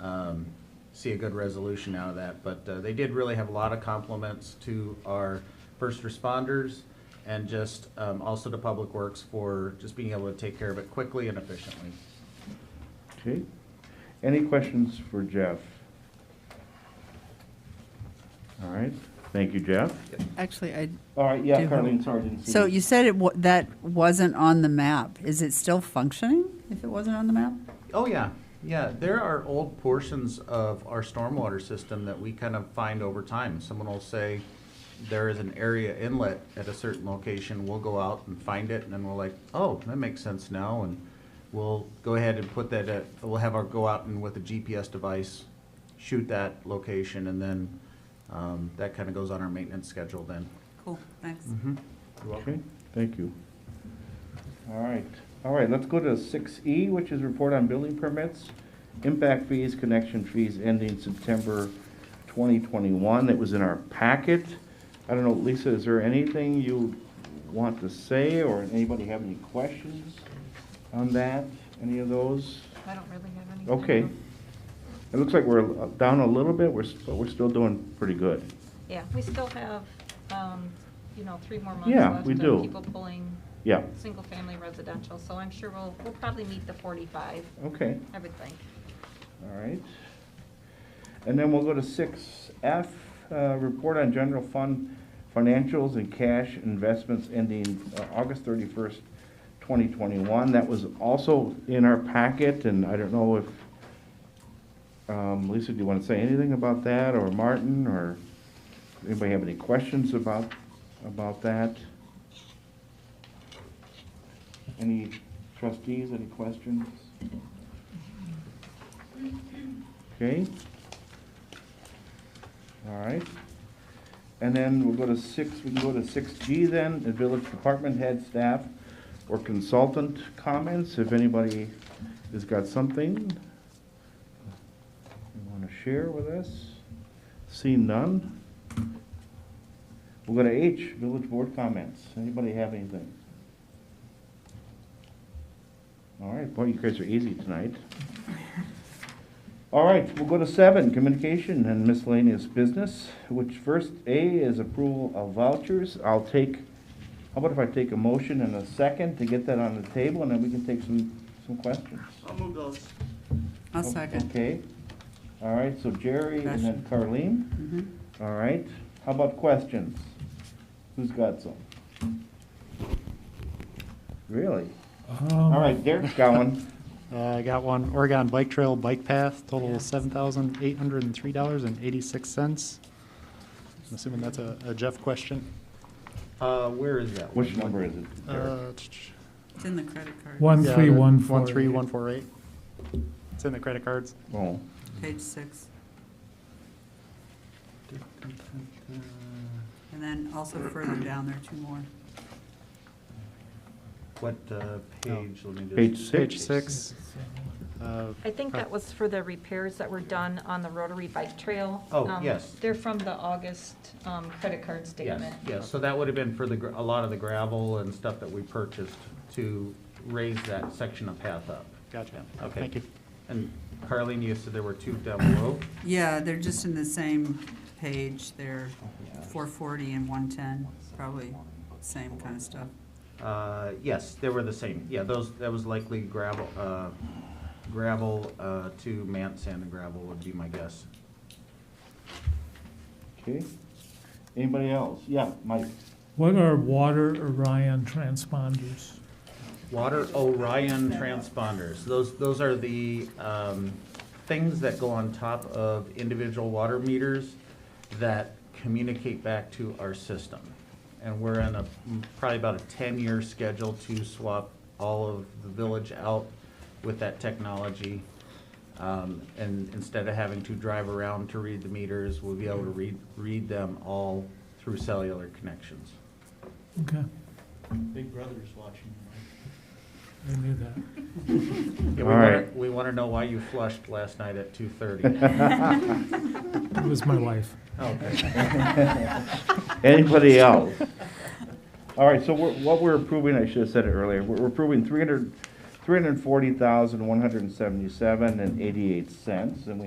um, see a good resolution out of that. But uh, they did really have a lot of compliments to our first responders and just um, also to Public Works for just being able to take care of it quickly and efficiently. Okay. Any questions for Jeff? All right, thank you, Jeff. Actually, I, All right, yeah, Do you have- Carleen, sorry, I didn't see. so you said it, wa- that wasn't on the map. Is it still functioning if it wasn't on the map? Oh, yeah, yeah, there are old portions of our stormwater system that we kind of find over time. Someone will say, there is an area inlet at a certain location, we'll go out and find it, and then we're like, oh, that makes sense now, and we'll go ahead and put that, at- we'll have our, go out and with a GPS device, shoot that location, and then um, that kind of goes on our maintenance schedule then. Cool, thanks. Okay, thank you. All right, all right, let's go to six E, which is report on building permits, impact fees, connection fees ending September twenty twenty-one. That was in our packet. I don't know, Lisa, is there anything you want to say, or anybody have any questions on that, any of those? I don't really have any. Okay. It looks like we're down a little bit, we're, s- but we're still doing pretty good. Yeah, we still have, um, you know, three more months Yeah, left we of do. people pulling Yeah, single-family residential, so I'm sure we'll, we'll probably meet the 45, okay. I would think. All right. And then we'll go to six F, uh, report on general fund financials and cash investments ending uh, August thirty-first, twenty twenty-one. That was also in our packet, and I don't know if, um, Lisa, do you want to say anything about that, or Martin, or anybody have any questions about, about that? Any trustees, any questions? Okay. All right. And then we'll go to six, we can go to six G then, the village department head, staff, or consultant comments, if anybody has got something you want to share with us. See none. We'll go to H, village board comments. Anybody have anything? All right, boy, you guys are easy tonight. All right, we'll go to seven, communication and miscellaneous business, which first A is approval of vouchers. I'll take, how about if I take a motion and a second to get that on the table, and then we can take some, some questions? I'll move those. I'll second. Okay. All right, so Jerry and then Carleen. Mhm. All right, how about questions? Who's got some? Really? Um, All right, Derek's got one. Uh, I got one, Oregon Bike Trail Bike Path, total seven thousand eight hundred and three dollars and eighty-six cents. I'm assuming that's a a Jeff question. Uh, Where is that? Which number is it, Derek? Uh, tch, tch. It's in the credit card. One, Yeah, three, the one, four. Uh, One, three, one, four, eight. It's in the credit cards. Oh, Page six. And then also further down there, two more. What uh, page? Let me just- page six? Page six. uh, I think that was for the repairs that were done on the Rotary Bike Trail. Oh, Um, yes. They're from the August um, credit card statement. Yes, yes, so that would have been for the, gr- a lot of the gravel and stuff that we purchased to raise that section of path up. Gotcha. Okay. Thank you. And Carlene, you said there were two down below? Yeah, they're just in the same page. They're four forty and one ten, probably same kind of stuff. Uh, yes, they were the same, yeah, those, that was likely gravel, uh, gravel uh, to man sand and gravel would be my guess. Okay. Anybody else? Yeah, Mike. What are water Orion transponders? Water Orion transponders, those, those are the, um, things that go on top of individual water meters that communicate back to our system. And we're in a, probably about a ten-year schedule to swap all of the village out with that technology. Um, and instead of having to drive around to read the meters, we'll be able to read, read them all through cellular connections. Okay, Big Brother's watching you, Mike. I knew that. Yeah, we All wanna- right. We wanna know why you flushed last night at two thirty. It was my wife. Okay. Anybody else? All right, so we're- what we're approving, I should have said it earlier, we're we're approving three hundred, three hundred and forty thousand, one hundred and seventy-seven and eighty-eight cents, and we